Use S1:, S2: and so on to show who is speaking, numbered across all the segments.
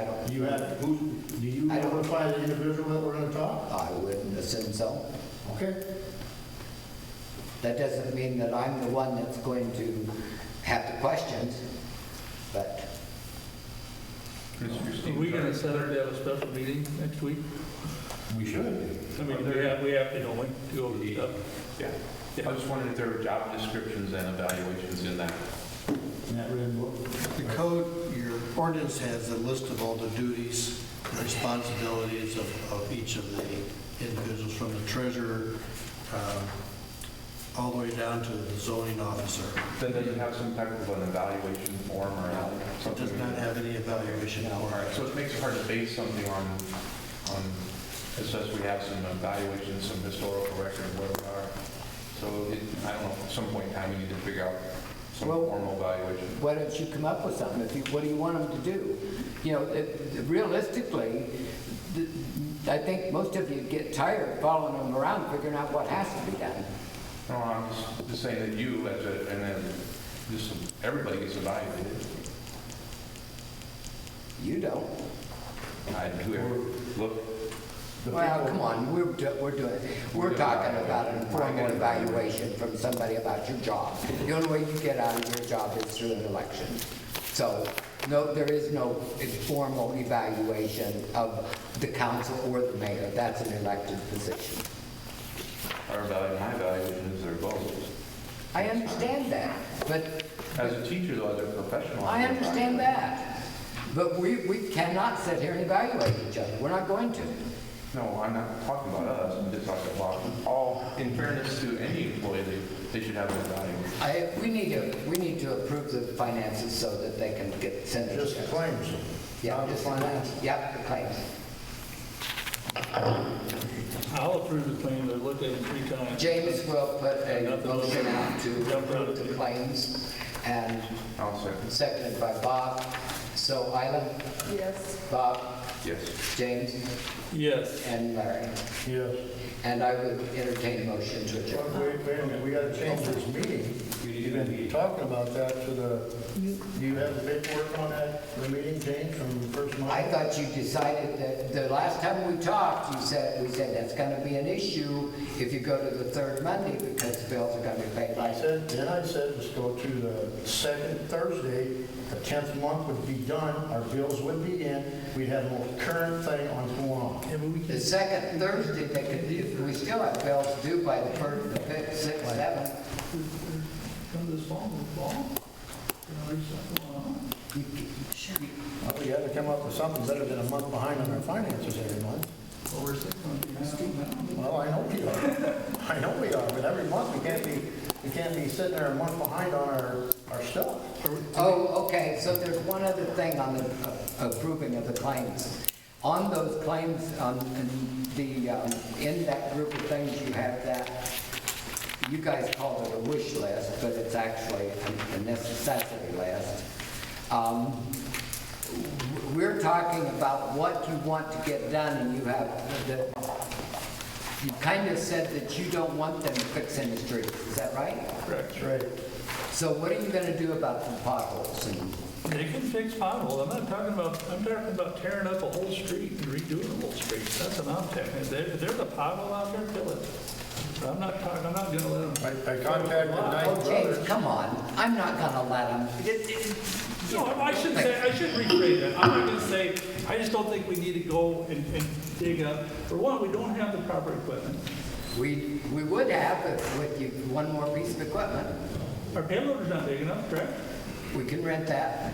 S1: I don't,
S2: You have, who, do you
S1: I don't-
S2: notify the individual that we're gonna talk?
S1: I wouldn't assume so.
S2: Okay.
S1: That doesn't mean that I'm the one that's going to have the questions, but
S3: Mr.
S4: Are
S3: Steve.
S4: we gonna set up to have a special meeting next week?
S2: We should.
S4: I mean, we have, we have to, don't we, to go over stuff?
S3: Yeah, I was wondering if there were job descriptions and evaluations in that.
S2: In that red book.
S5: The code, your ordinance has a list of all the duties and responsibilities of, of each of the individuals, from the treasurer, um, all the way down to the zoning officer.
S3: Then does it have some type of an evaluation form or
S5: It
S3: something?
S5: does not have any evaluation
S3: All
S5: for
S3: right,
S5: it.
S3: so it makes it hard to base something on, on, it says we have some evaluations, some historical record of where we are. So it, I don't know, at some point in time, we need to figure out some
S1: Well-
S3: formal evaluation.
S1: why don't you come up with something? If you, what do you want them to do? You know, it- realistically, th- I think most of you get tired following them around, figuring out what has to be done.
S3: No, I'm just- just saying that you, as a, and then, just, everybody gets evaluated.
S1: You don't.
S3: I, whoever, look,
S2: The
S1: Well,
S2: people-
S1: come on, we're, do- we're doing, we're talking about an informal evaluation from somebody about your job. The only way you get out of your job is through an election. So, no, there is no informal evaluation of the council or the mayor. That's an elected position.
S3: our value, my evaluation is their goals.
S1: I understand that, but
S3: As a teacher, though, as a professional.
S1: I understand that. But we, we cannot sit here and evaluate each other. We're not going to.
S3: No, I'm not talking about us, I'm just talking about all, in fairness to any employee, they, they should have an evaluation.
S1: I, we need to, we need to approve the finances so that they can get sent.
S2: Just the claims.
S1: Yeah,
S2: Not the
S1: just-
S2: finance.
S1: Yep, the claims.
S4: I'll approve the claims, I looked at them three times.
S1: James will put a motion out to approve the claims and
S3: I'll second.
S1: seconded by Bob. So Isla,
S6: Yes.
S1: Bob,
S3: Yes.
S1: James,
S4: Yes,
S1: and Larry.
S2: Yes.
S1: And I would entertain a motion to
S2: Wait,
S1: adjourn.
S2: wait a minute, we gotta change this meeting. You've been talking about that to the, do you have the paperwork on that, the meeting change from the first month?
S1: I thought you decided that, the last time we talked, you said, we said that's gonna be an issue if you go to the third Monday because bills are gonna be paid by.
S2: I said, then I said, let's go to the second Thursday, the 10th month would be done, our bills would be in, we'd have a more current thing on going on.
S1: The second Thursday, they could, do- we still have bills due by the first, the fifth, sixth, seventh.
S4: come this fall, this fall. There's something going on.
S2: Well, We had to come up with something better than a month behind on our finances every month.
S4: Well, we're six months behind.
S2: Well, I know we are, I know we are, but every month we can't be, we can't be sitting there a month behind on our, our stuff.
S1: Oh, okay, so there's one other thing on the uh, approving of the claims. On those claims, on the, um, in that group of things, you have that, you guys call it a wish list, but it's actually a- a necessity list. Um, We're talking about what you want to get done, and you have, the- you kind of said that you don't want them fixing the streets, is that right?
S4: Correct.
S2: That's right.
S1: So what are you gonna do about the potholes and
S4: They can fix potholes, I'm not talking about, I'm talking about tearing up a whole street and redoing a whole street, that's an option. If there- if there's a pothole out there, fill it. But I'm not talking, I'm not gonna let them.
S2: I I contacted Knight
S1: Oh, James,
S2: Brothers.
S1: come on, I'm not gonna let him.
S4: No, I should say, I should rephrase that. I'm not gonna say, I just don't think we need to go and, and dig up. For one, we don't have the proper equipment.
S1: We, we would have if with you, one more piece of equipment.
S4: Our payloader's not big enough, correct?
S1: We can rent that.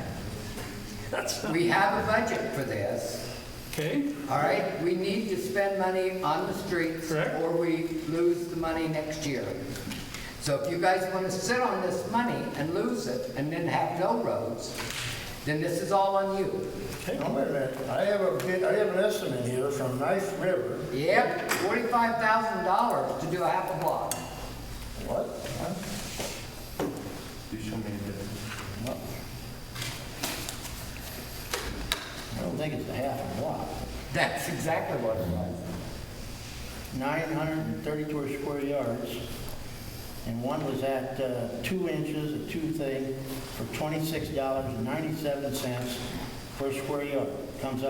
S4: That's not,
S1: We have a budget for this,
S4: okay?
S1: all right? We need to spend money on the streets
S4: Correct.
S1: or we lose the money next year. So if you guys wanna sit on this money and lose it and then have no roads, then this is all on you.
S2: No, wait a minute, I have a bid, I have an estimate here from Knife River.
S1: Yep, forty-five thousand dollars to do a half a block.
S2: What?
S3: Do show me the difference.
S2: I don't think it's a half a block.
S1: That's exactly what it was.
S2: 932 square yards, and one was at uh, two inches, a two thing, for $26.97 per square yard. that comes